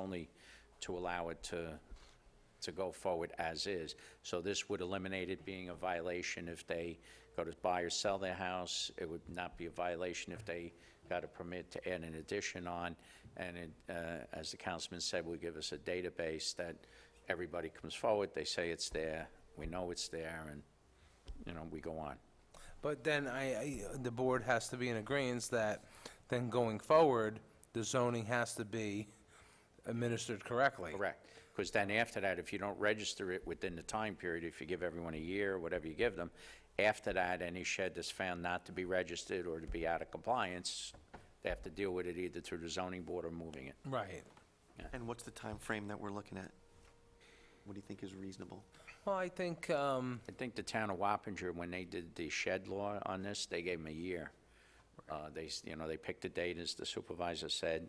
only to allow it to, to go forward as is. So this would eliminate it being a violation if they go to buy or sell their house. It would not be a violation if they got a permit to add an addition on. And it, uh, as the councilman said, would give us a database that everybody comes forward, they say it's there, we know it's there, and, you know, we go on. But then I, I, the board has to be in agreeance that then going forward, the zoning has to be administered correctly. Correct. Because then after that, if you don't register it within the time period, if you give everyone a year, whatever you give them, after that, any shed that's found not to be registered or to be out of compliance, they have to deal with it either through the zoning board or moving it. Right. And what's the time frame that we're looking at? What do you think is reasonable? Well, I think, um, I think the town of Wappinger, when they did the shed law on this, they gave them a year. Uh, They, s- you know, they picked a date, as the supervisor said,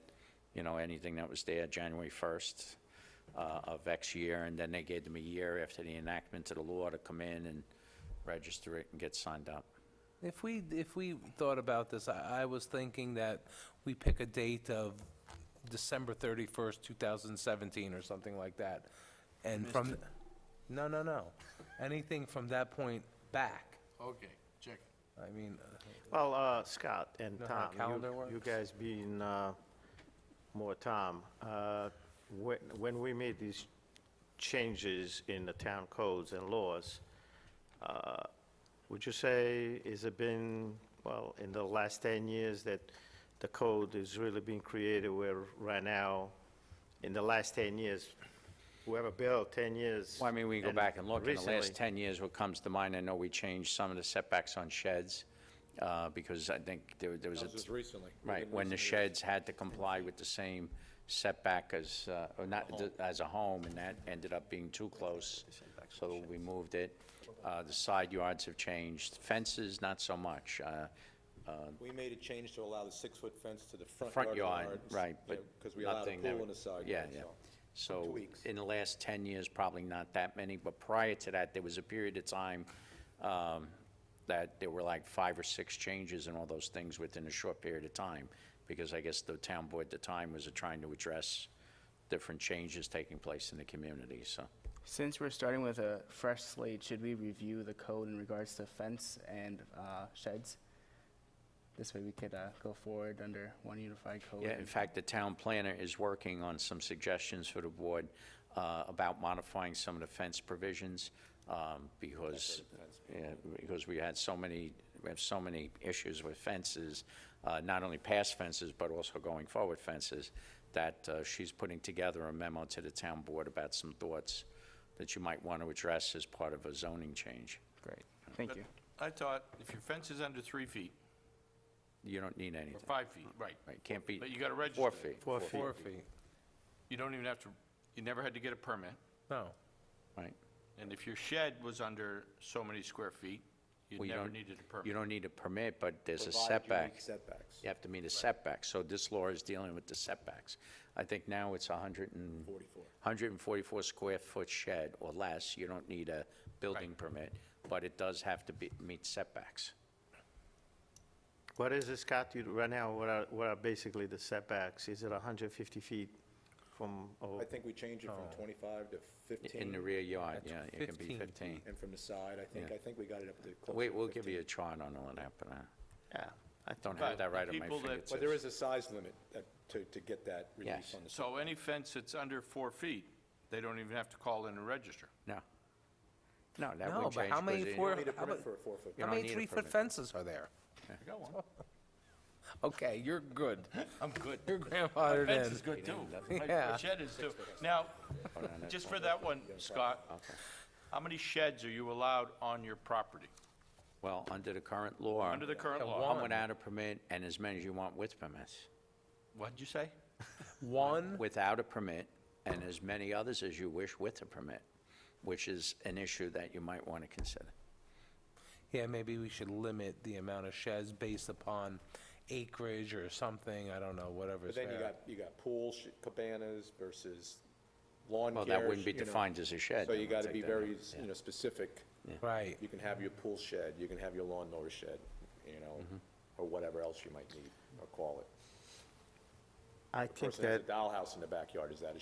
you know, anything that was there, January 1st uh, of X year, and then they gave them a year after the enactment of the law to come in and register it and get signed up. if we, if we thought about this, I, I was thinking that we pick a date of December thirty-first, two thousand seventeen, or something like that. And from, no, no, no, anything from that point back, Okay, check. I mean, uh, Well, uh, Scott and Know how Tom, calendar you- you works? guys being uh, more Tom, uh, when when we made these changes in the town codes and laws, uh, would you say, is it been, well, in the last 10 years that the code is really being created where right now, in the last 10 years, whoever built 10 years. Well, I mean, we go back and look, in the recently- last 10 years, what comes to mind, I know we changed some of the setbacks on sheds, uh, because I think there there was a... That was just recently. Right, when the sheds had to comply with the same setback as, uh, or not, th- as a home, and that ended up being too close, so we moved it. Uh, The side yards have changed, fences, not so much. Uh, We made a change to allow the six-foot fence to the front Front yard. yard, right, but Because we allowed a nothing that... pool would- on the side Yeah, yard, yeah. so. So, in the last 10 years, probably not that many, but prior to that, there was a period of time um, that there were like five or six changes and all those things within a short period of time, because I guess the town board at the time was trying to address different changes taking place in the community, so. Since we're starting with a fresh slate, should we review the code in regards to fence and uh, sheds? This way we could uh, go forward under one unified code. Yeah, in fact, the town planner is working on some suggestions for the board uh, about modifying some of the fence provisions, um, because, yeah, because we had so many, we have so many issues with fences, uh, not only past fences, but also going forward fences, that uh, she's putting together a memo to the town board about some thoughts that you might want to address as part of a zoning change. Great, thank you. I thought if your fence is under three feet, You don't need or anything, five feet, right, right? Can't be. But you gotta register Four it. feet, Four feet. four feet, you don't even have to, you never had to get a permit. no. right? And if your shed was under so many square feet, you Well, you never don't- needed a You permit. don't need a permit, but there's a Provided you meet setback. Setbacks. You have to meet a setback, so this law is dealing with the setbacks. I think now it's 100 and... 144 square foot shed or less, you don't need a building permit, but it does have to be, meet setbacks. What is it, Scott, you, right now, what are, what are basically the setbacks? Is it 150 feet from, oh, or I think we changed it from Oh. 25 to In the 15, rear yard, yeah, That's it can be 15. 15. and from the side, I think, Yeah. I think we got it up to close Wait, to we'll give 15. you a chart on all that, but I Yeah, I don't But have that right the on my people that- fingertips. But there is a size limit that- to, to get that Yes. relief on the. So any fence that's under four feet, they don't even have to call in and register. No. No, that would No, change. but how 'cause many it- four- You Need a How permit about- for a four-foot. You How don't many need a three-foot permit. fences are there? I got one. Okay, you're good. I'm good. Your grandfather Fence did. is good too. Yeah. My shed is too. Now, just for that one, Scott, how many sheds are you allowed on your property, Well, under the current law, under the current Yeah, law? one. one without a permit and as many as you want with permits. What'd you say? One, without a permit, and as many others as you wish with a permit, which is an issue that you might want to consider. yeah, maybe we should limit the amount of sheds based upon acreage or something, I don't know, whatever's But then you there. got, you got pool sh- cabanas versus lawn Well, care. that wouldn't be you know. defined as a shed. So then, you I'll got to take be that. very, you know, specific. Right, You can have your pool shed, you can have your lawnmower shed, you know, or whatever else you might need or call it. I Person think has a that dollhouse in the backyard, is that a